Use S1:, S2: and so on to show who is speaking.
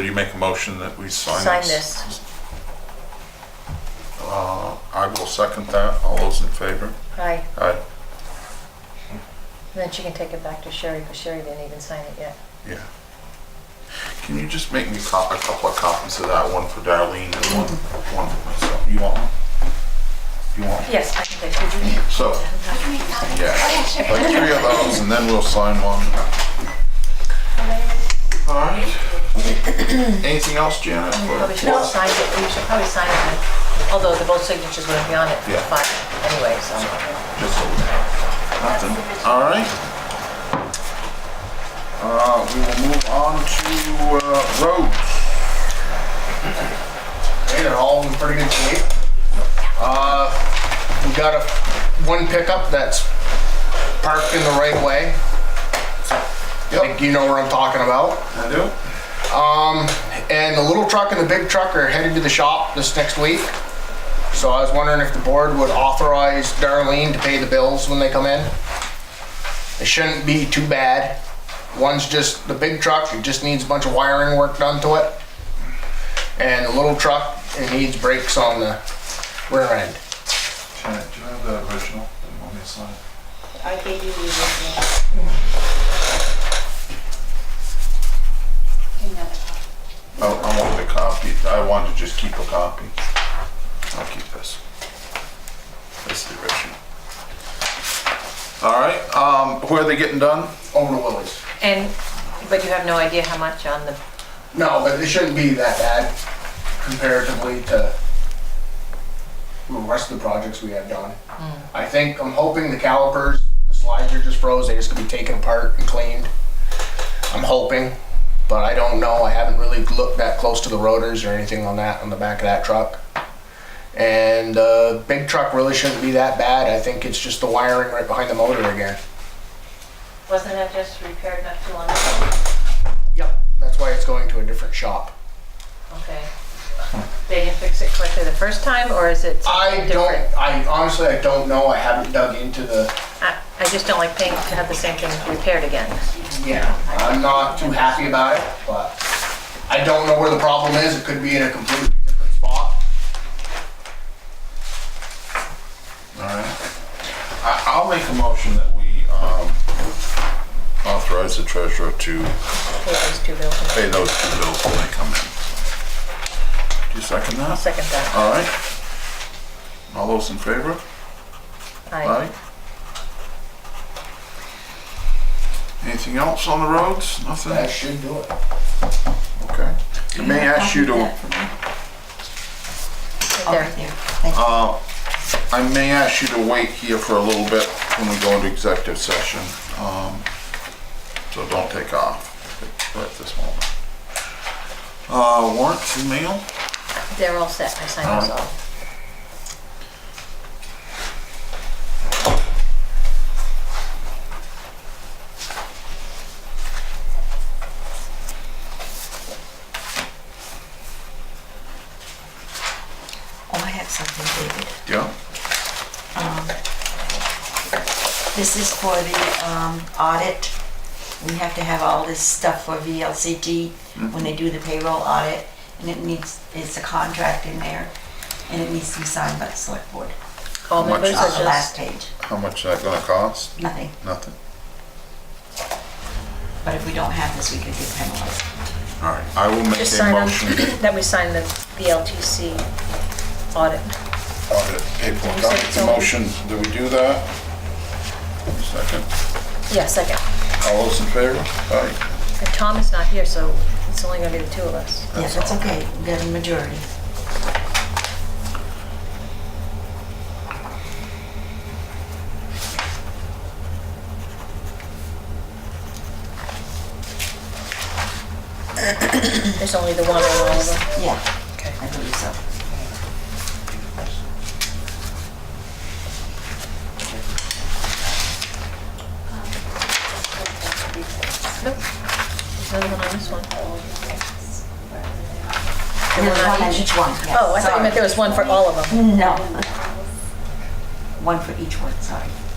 S1: Do you make a motion that we sign this?
S2: Sign this.
S1: Uh, I will second that. All those in favor?
S2: Hi.
S1: Aye.
S2: Then she can take it back to Sherry, because Sherry didn't even sign it yet.
S1: Yeah. Can you just make me cop, a couple of copies of that, one for Darlene and one, one for myself? You want one? You want? one?
S2: Yes, I can take it.
S1: So, yeah, like three of those and then we'll sign one. All right. Anything else, Janet? or-
S2: Probably should have signed it, you should probably sign it, then. although the both signatures wouldn't be on it,
S1: Yeah.
S2: but anyway, so.
S1: Just so we Nothing. All right. Uh, we will move on to, uh, roads.
S3: Hey, they're all in pretty good shape. Uh, we got a, one pickup that's parked in the right way. I think you know where I'm talking about.
S1: I do?
S3: And the little truck and the big truck are headed to the shop this next week. So I was wondering if the board would authorize Darlene to pay the bills when they come in. It shouldn't be too bad. One's just the big truck, it just needs a bunch of wiring work done to it. And the little truck, it needs brakes on the rear end.
S1: Janet, do you have the original? Do you want me to sign it?
S4: I gave you the original. Give me that copy.
S1: Oh, I wanted a copy. I wanted to just keep a copy. I'll keep this. This is the original. All right, um, where are they getting done?
S3: Over to Willie's.
S2: And, but you have no idea how much on the,
S3: No, but it shouldn't be that bad comparatively to the rest of the projects we have done. I think, I'm hoping the calipers, the slides are just froze, they just gonna be taken apart and cleaned. I'm hoping, but I don't know, I haven't really looked that close to the rotors or anything on that, on the back of that truck. And the big truck really shouldn't be that bad, I think it's just the wiring right behind the motor again.
S2: wasn't that just repaired not too long ago?
S3: Yep. That's why it's going to a different shop.
S2: Okay. They didn't fix it correctly the first time, or is it
S3: I
S2: something
S3: don't.
S2: different?
S3: I honestly, I don't know. I haven't dug into the.
S2: I, I just don't like paying to have the same thing repaired again.
S3: Yeah. I'm not too happy about it, but I don't know where the problem is. It could be in a completely different spot.
S1: All right. I, I'll make a motion that we, um, authorize the treasurer to
S2: Pay those two bills.
S1: pay those two bills when they come in. Do you second
S2: I'll
S1: that?
S2: second that.
S1: All right. All those in favor?
S2: Aye.
S1: Aye. Anything else on the roads? Nothing?
S3: That should do it.
S1: Okay. I may ask you to,
S2: Right there. Uh,
S1: I may ask you to wait here for a little bit when we go into executive session. Um, So don't take off at this moment. Uh, warrants and mail?
S2: They're all set, I signed those all.
S5: Oh, I have something, David.
S1: Yeah.
S5: This is for the um, audit. We have to have all this stuff for VLCT
S2: Mm-hmm.
S5: when they do the payroll audit, and it needs, it's a contract in there, and it needs to be signed by the select board.
S2: All
S1: How much
S2: members
S1: is
S5: On
S2: are
S5: the last
S2: just,
S5: page,
S1: How much is that gonna cost?
S5: nothing.
S1: Nothing.
S5: But if we don't have this, we could get penalized.
S1: All right, I will make
S2: just
S1: a
S2: sign on,
S1: motion.
S2: that we sign the BLTC audit.
S1: Audit paperwork. I'll make the motion. Do we do that? Second.
S2: Yeah, second.
S1: All those in favor? Aye.
S2: And Tom is not here, so it's only gonna be the two of us.
S5: Yeah, that's okay, we got a majority.
S2: There's only the one on all of them.
S5: Yeah, I believe so.
S2: Nope. There's another one on this one.
S5: There's
S2: one on
S5: one on
S2: each?
S5: each one, yes.
S2: Oh, I thought you meant there was one for all of them.
S5: No. One for each one, sorry.